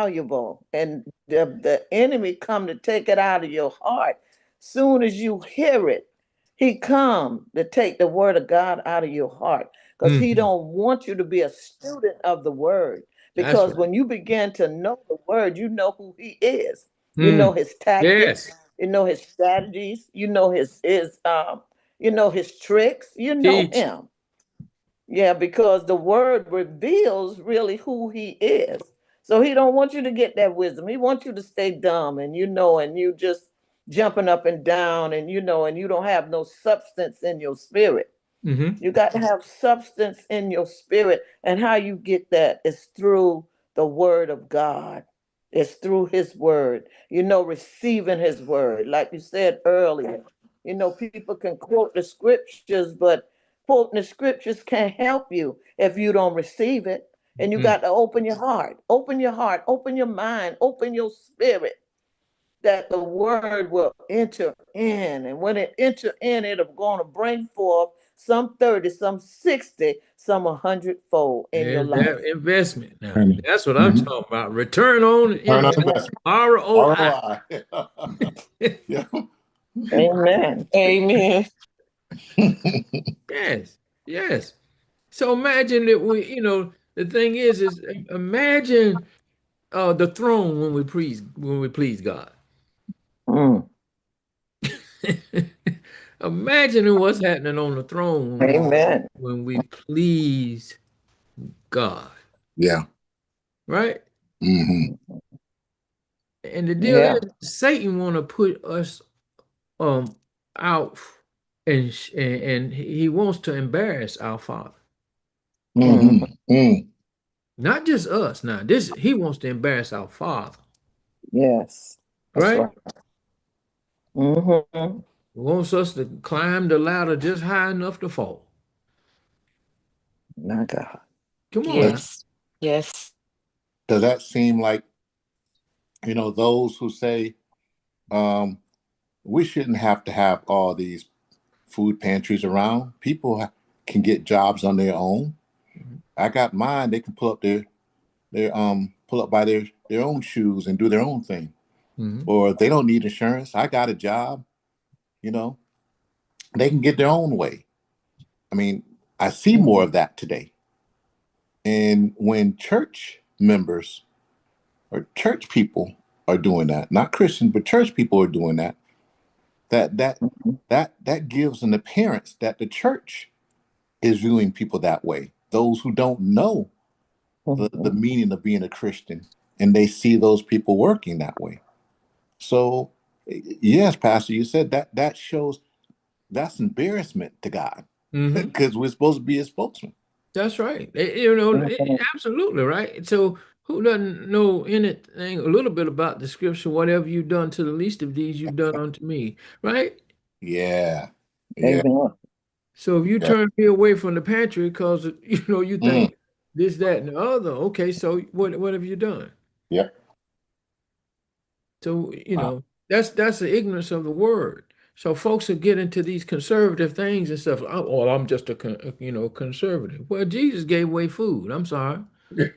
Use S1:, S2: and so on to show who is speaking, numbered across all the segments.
S1: valuable and the, the enemy come to take it out of your heart soon as you hear it he come to take the word of god out of your heart because he
S2: Mhm.
S1: don't want you to be a student of the word
S2: That's
S1: because
S2: right.
S1: when you begin to know the word you know who he is you know
S2: Mm.
S1: his tactics
S2: Yes.
S1: you know his strategies you know his his um you know his tricks you know
S2: Teach.
S1: him yeah, because the word reveals really who he is. So he don't want you to get that wisdom. He wants you to stay dumb and you know, and you just jumping up and down and you know, and you don't have no substance in your spirit.
S2: hmm
S1: You got to have substance in your spirit. And how you get that is through the word of God. It's through his word, you know, receiving his word. Like you said earlier, you know, people can quote the scriptures, but quoting the scriptures can't help you if you don't receive it. And you
S2: Mm.
S1: got to open your heart, open your heart, open your mind, open your spirit that the word will enter in. And when it enter in, it'll gonna bring forth some 30, some 60, some a hundredfold in your
S2: There's
S1: life.
S2: that investment now.
S3: Amen.
S2: That's what I'm
S3: Mhm.
S2: talking about. Return on
S3: Turn on
S2: investment.
S3: investment.
S2: ROI.
S3: ROI. yeah.
S1: Amen.
S4: Amen.
S2: Yes. Yes. So imagine that we, you know, the thing is, is imagine uh, the throne when we please when we please God.
S1: Mm.
S2: imagine what's happening on the throne when we,
S1: Amen.
S2: when we please God,
S3: Yeah.
S2: right?
S3: hmm
S2: And the deal
S1: Yeah.
S2: is, Satan want to put us um out and sh- and and he wants to embarrass our father
S3: hmm
S2: Mm-hmm.
S3: mm
S2: not just us now this he wants to embarrass our father
S1: Yes. That's
S2: right
S1: right. Mm-hmm.
S2: He wants us to climb the ladder just high enough to fall
S1: My God.
S2: come on now.
S4: Yes. Yes.
S3: Does that seem like, you know, those who say um, we shouldn't have to have all these food pantries around? People ha- can get jobs on their own. I got mine. They can pull up their, their um pull up by their, their own shoes and do their own thing.
S2: Mhm.
S3: Or they don't need insurance. I got a job, you know. They can get their own way. I mean, I see more of that today. And when church members or church people are doing that, not Christians, but church people are doing that, that that
S1: Mm-hmm.
S3: that that gives an appearance that the church is viewing people that way. Those who don't know the, the
S1: Mhm.
S3: meaning of being a Christian and they see those people working that way. So y- yes, Pastor, you said that that shows that's embarrassment to God
S2: Mhm.
S3: because we're supposed to be his spokesman.
S2: that's right Eh, you know eh, eh,
S1: Mhm.
S2: absolutely right so who doesn't know anything a little bit about the scripture whatever you've done to the least of these you've done unto me right
S3: Yeah. Yeah.
S1: Amen.
S2: So if you
S3: Yeah.
S2: turn me away from the pantry because you know you
S3: Mm.
S2: think this, that, and the other, okay, so what what have you done?
S3: Yeah.
S2: So you
S3: Wow.
S2: know that's that's the ignorance of the word. So folks will get into these conservative things and stuff. Oh, well, I'm just a con- a, you know conservative. Well, Jesus gave away food. I'm sorry.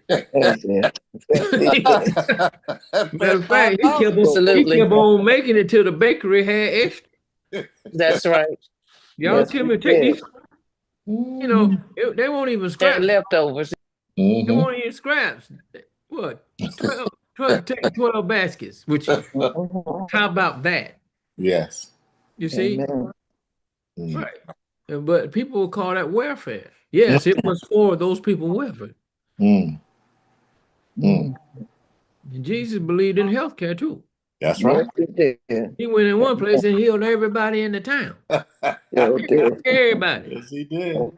S1: Yes, yes. Yes, he did.
S2: Matter of
S3: That's
S2: fact, he kept on he
S4: Absolutely.
S2: kept on making it till the bakery had extra.
S4: That's right.
S2: Y'all
S1: Yes,
S2: tell
S1: he
S2: me take
S1: did.
S2: these. You know it- they won't even
S4: They're
S2: scrap
S4: leftovers.
S2: They
S1: Mm-hmm.
S3: hmm
S2: won't even scraps. What? 12, 12, take 12 baskets with you.
S1: Mhm.
S2: How about that?
S3: Yes.
S2: You see?
S1: Amen.
S3: Mm.
S2: Right. Uh, But people will call that welfare. Yes, it was for those people welfare.
S3: Mm. Mm.
S1: Mhm.
S2: And Jesus believed in healthcare too.
S3: That's
S1: Yes,
S3: right.
S1: he did.
S2: He went in one
S1: Amen.
S2: place and healed everybody in the town.
S1: Sure did.
S2: Everybody.
S3: yes, he did.
S1: That's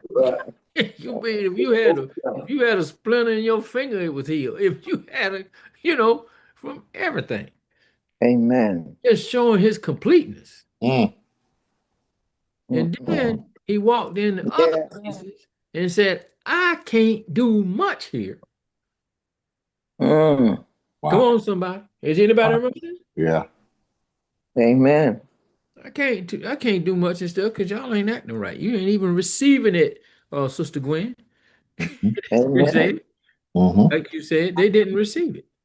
S1: right.
S2: you mean if you had a if you had a splinter in your finger, it was healed. If you had a, you know, from everything.
S1: Amen.
S2: Just showing his completeness.
S3: Mm.
S2: And
S3: Mm-hmm.
S1: Mm-mm.
S2: then he walked in the other
S1: Yeah.
S2: places and said, I can't do much here.
S1: Mm.
S2: Come
S3: Wow.
S2: on, somebody. Is anybody
S3: Wow.
S2: remember this?
S3: Yeah.
S1: Amen.
S2: I can't do, I can't do much and stuff because y'all ain't acting right. You ain't even receiving it, uh, Sister Gwen. You
S1: Amen.
S2: said,
S3: Mm-hmm.
S2: like you said, they didn't receive it.